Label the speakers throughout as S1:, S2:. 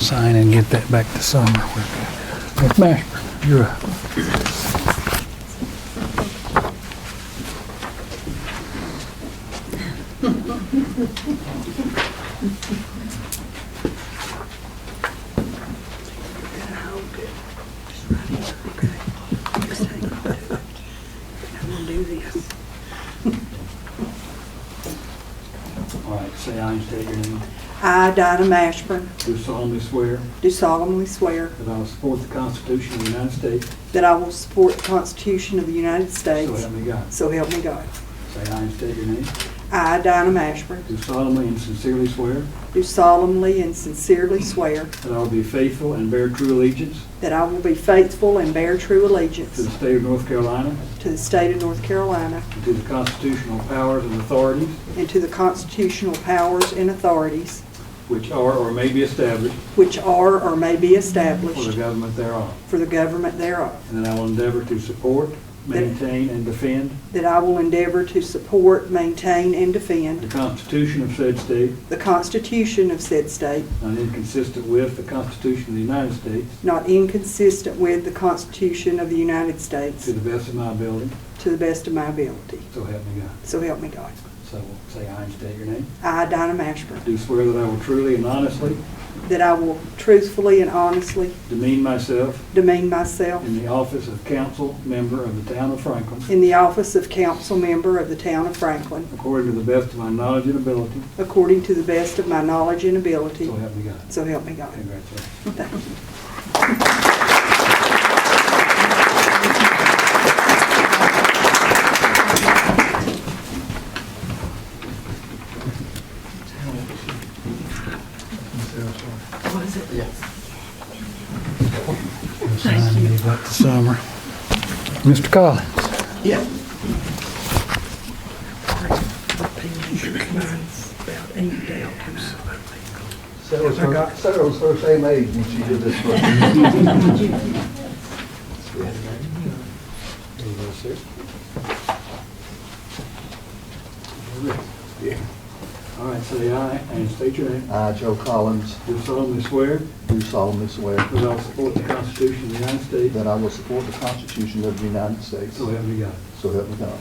S1: can get that back to summer. Miss Mashburn, you're up.
S2: All right, say aye and state your name.
S3: I, Dinah Mashburn,
S2: Do solemnly swear
S3: do solemnly swear
S2: that I will support the Constitution of the United States,
S3: that I will support the Constitution of the United
S2: so
S3: States,
S2: help me God.
S3: so help me God.
S2: Say aye and state your name.
S3: I, Dinah Mashburn,
S2: Do solemnly and sincerely swear
S3: do solemnly and sincerely swear
S2: that I will be faithful and bear true allegiance
S3: that I will be faithful and bear true
S2: to the
S3: allegiance
S2: state of North Carolina
S3: to the state of North Carolina
S2: and to the constitutional powers and authorities
S3: and to the constitutional powers and authorities
S2: which are or may be established
S3: which are or may be
S2: for the
S3: established
S2: government thereof.
S3: for the government thereof,
S2: And that I will endeavor to support, maintain, and defend
S3: that I will endeavor to support, maintain, and
S2: the
S3: defend
S2: Constitution of said state,
S3: the Constitution of said state,
S2: not inconsistent with the Constitution of the United States,
S3: not inconsistent with the Constitution of the United States,
S2: to the best of my ability,
S3: to the best of my ability.
S2: so help me God.
S3: So help me God.
S2: So say aye and state your name.
S3: I, Dinah Mashburn,
S2: Do swear that I will truly and honestly
S3: that I will truthfully and honestly
S2: demean myself
S3: demean myself
S2: in the office of council member of the town of Franklin,
S3: in the office of council member of the town of Franklin,
S2: according to the best of my knowledge and ability,
S3: according to the best of my knowledge and ability.
S2: so help me God.
S3: So help me God.
S2: Congratulations.
S3: Thank you.
S1: Sign me about the summer. Mr. Collins,
S4: Yeah. About eight dollars.
S5: Sarah's her, Sarah's her same age when she did this one.
S2: All right, say aye and state your name.
S5: I, Uh, Joe Collins,
S2: Do solemnly swear
S5: do solemnly swear
S2: that I will support the Constitution of the United States,
S5: that I will support the Constitution of the United States,
S2: so help me God.
S5: so help me God.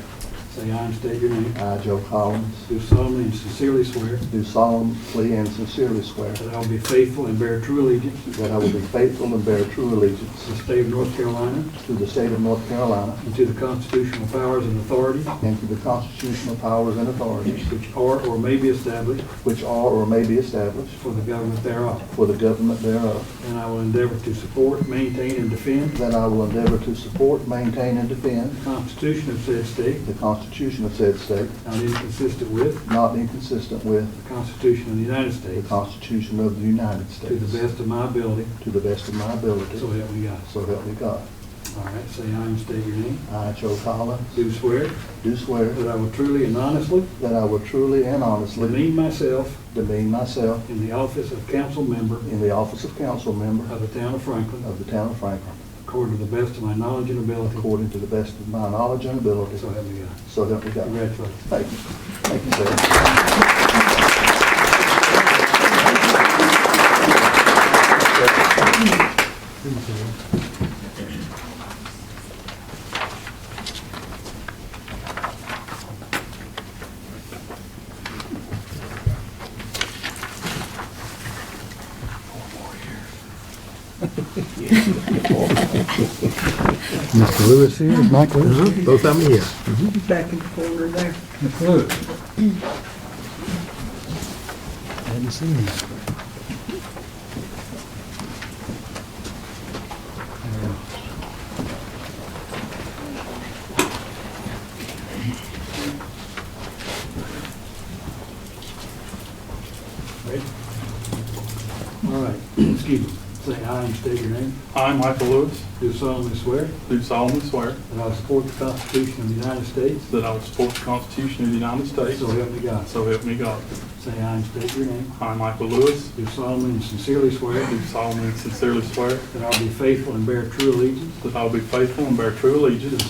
S2: Say aye and state your name.
S5: I, Joe Collins,
S2: Do solemnly and sincerely swear
S5: do solemnly and sincerely swear
S2: that I will be faithful and bear true allegiance
S5: that I will be faithful and bear true
S2: to the
S5: allegiance
S2: state of North Carolina
S5: to the state of North Carolina
S2: and to the constitutional powers and authorities
S5: and to the constitutional powers and authorities
S2: which are or may be established
S5: which are or may be established
S2: for the government thereof.
S5: for the government thereof,
S2: And I will endeavor to support, maintain, and defend
S5: that I will endeavor to support, maintain, and defend
S2: the Constitution of said state,
S5: the Constitution of said state,
S2: not inconsistent with
S5: not inconsistent with
S2: the Constitution of the United
S5: The
S2: States,
S5: Constitution of the United
S2: to
S5: States.
S2: the best of my ability,
S5: To the best of my ability.
S2: so help me God.
S5: So help me God.
S2: All right, say aye and state your name.
S5: I, Joe Collins,
S2: Do swear
S5: do swear
S2: that I will truly and honestly
S5: that I will truly and honestly
S2: demean myself
S5: demean myself
S2: in the office of council member
S5: in the office of council member
S2: of the town of Franklin,
S5: of the town of Franklin,
S2: according to the best of my knowledge and ability,
S5: according to the best of my knowledge and ability.
S2: so help me God.
S5: So help me God.
S2: Congratulations.
S5: Thank you. Thank you, sir.
S1: Mr. Lewis here, Mike Lewis. here.
S6: Both of them, yeah.
S4: Back in the corner there.
S1: Mr. Lewis. Hadn't seen him.
S2: Ready? All right, excuse me. Say aye and state your name.
S7: I, Michael Lewis,
S2: Do solemnly swear
S7: do solemnly swear
S2: that I will support the Constitution of the United States,
S7: that I will support the Constitution of the United States,
S2: so help me God.
S7: so help me God.
S2: Say aye and state your name.
S7: I, Michael Lewis,
S2: Do solemnly and sincerely swear
S7: do solemnly and sincerely swear
S2: that I will be faithful and bear true allegiance
S7: that I will be faithful and bear true allegiance